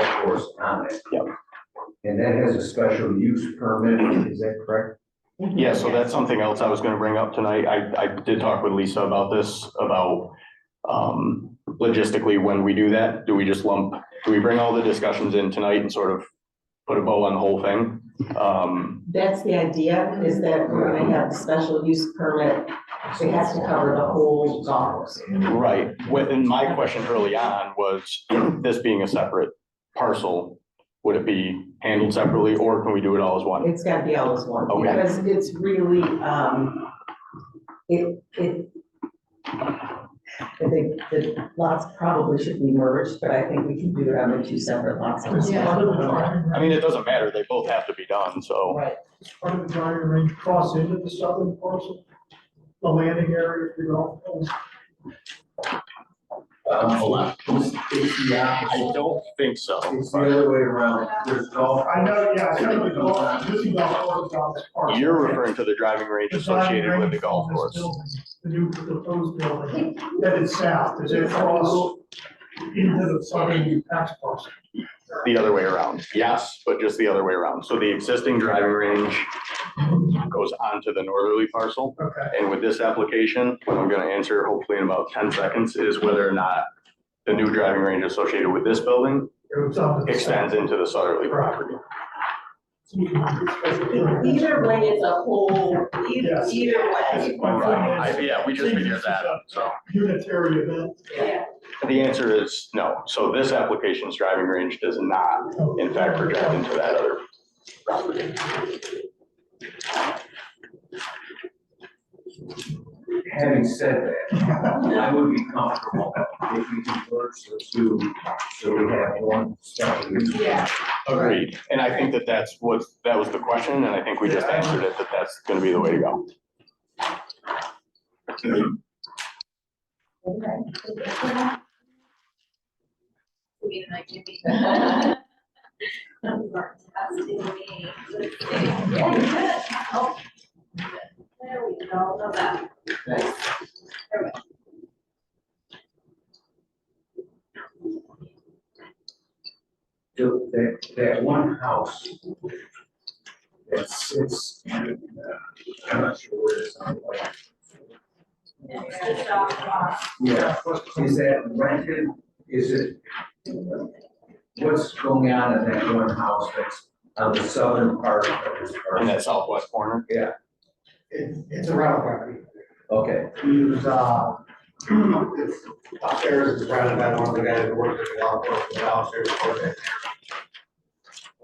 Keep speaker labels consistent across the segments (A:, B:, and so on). A: course on it.
B: Yep.
A: And that has a special use permit, is that correct?
B: Yeah, so that's something else I was gonna bring up tonight. I, I did talk with Lisa about this, about um, logistically, when we do that, do we just lump, do we bring all the discussions in tonight and sort of put a bow on the whole thing? Um,
C: That's the idea, is that we're gonna have a special use permit, so it has to cover the whole golf course.
B: right, What- and my question early on was, this being a separate parcel, would it be handled separately or can we do it all as one?
C: It's gotta be all as one,
B: Okay.
C: because it's really, um, it, it. I think the lots probably should be merged, but I think we can do it on the two separate lots.
B: I mean, it doesn't matter, they both have to be done, so,
C: Right,
D: part of the driving range cross into the southern parcel, the landing area, if you don't.
A: Um, Yeah,
B: I don't think so.
A: it's the other way around, there's golf.
D: I know, yeah, I know the golf, this is golf course on this parcel.
B: You're referring to the driving range
D: The
B: associated
D: driving
B: with the
D: range
B: golf
D: from this
B: course.
D: building, The new proposed building, that is south, does it cross into the southern tax parcel?
B: The other way around, yes, but just the other way around. So the existing driving range goes onto the northerly parcel.
D: Okay,
B: And with this application, what I'm gonna answer hopefully in about ten seconds is whether or not the new driving range associated with this building
D: it was on the.
B: extends into the southerly property.
C: either way, it's a whole, either,
D: Yes.
C: either way.
D: That's my point
B: I-
D: is,
B: Yeah, we just figured that out, so.
D: Unitary event.
B: The answer is no. So this application's driving range does not, in fact, project into that other property.
A: Having said that, I would be comfortable if we converge the two, so we have one special use.
C: Yeah.
B: Agreed, and I think that that's what, that was the question, and I think we just answered it, that that's gonna be the way to go.
E: We didn't like to be- You are testing me. Oh. There we go, love that. There
A: So That, that one house that sits, and, uh, I'm not sure where it's on, like,
E: we go. It's just off, off.
A: Yeah, is that rented, is it? What's going on in that one house that's on the southern part of this
B: In
A: part?
B: that southwest corner,
D: It's, it's around property.
A: Okay,
D: He's, uh, it's upstairs is surrounded by one of the guys that works at the golf course, and downstairs is over there.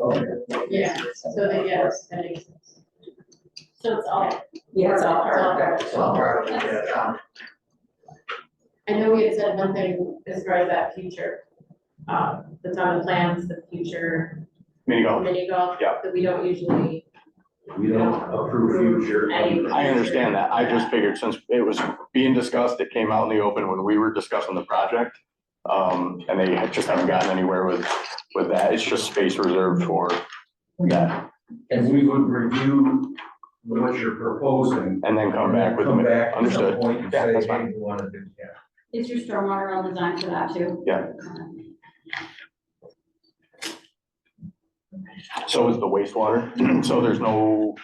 A: okay.
F: Yeah, so that, yes, that makes sense.
E: So it's all.
C: Yeah, it's all part of that.
D: It's all part of it, yeah.
F: I know we had said one thing as far as that future, uh, that's on the plans, the future
B: mini golf.
F: mini golf.
B: Yeah.
F: That we don't usually,
A: We don't approve future.
F: I-
B: I understand that, I just figured since it was being discussed, it came out in the open when we were discussing the project. Um, and they had- just haven't gotten anywhere with, with that, it's just space reserved for that,
A: And we would review what you're proposing.
B: and then come back with,
A: Come back at some
B: understood.
A: point and
B: Yeah,
A: say,
B: that's
A: hey,
B: fine.
A: we want to do that.
G: Is your stormwater all designed for that too? Uh,
B: Yeah. So is the wastewater, so there's no,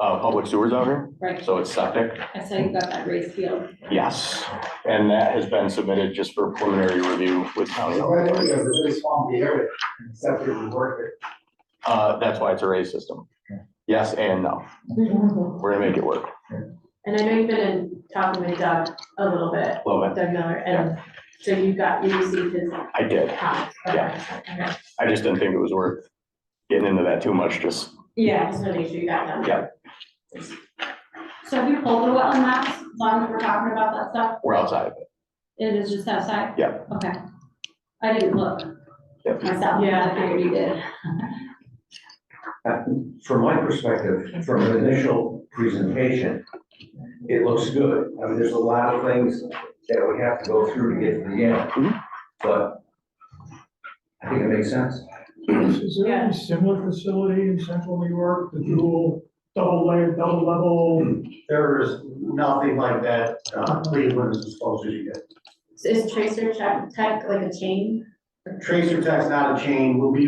B: uh, public sewers out here,
G: Right,
B: so it's septic.
G: I saw you got that raised field.
B: Yes, and that has been submitted just for preliminary review with county.
D: it's a really swampy area, except if you work
B: Uh, that's why it's a raised system. Yes and no. We're gonna make it work.
F: and I know you've been in talking with Doug a little bit,
B: Love it.
F: Doug Miller, and so you got, you received his
B: I did.
F: comments. Yeah.
B: I just didn't think it was worth getting into that too much, just,
F: Yeah, just wanna make sure you got them.
B: Yeah.
G: So have you pulled the wetland maps, as long as we're talking about that stuff?
B: we're outside of it.
G: It is just outside?
B: Yeah.
G: Okay. I didn't look
B: Yep.
G: myself, but
F: Yeah.
G: I figured you did.
H: Uh, From my perspective, from the initial presentation, it looks good. I mean, there's a lot of things that we have to go through to get to the end.
B: Mhm.
H: But I think it makes sense.
D: it. Is
F: there any
D: similar facility in central New York, the dual, double layer, double level? There is nothing like that, uh, Cleveland is as close as you get.
F: So Is Tracer Tech, Tech like a chain?
D: Tracer Tech's not a chain, we'll be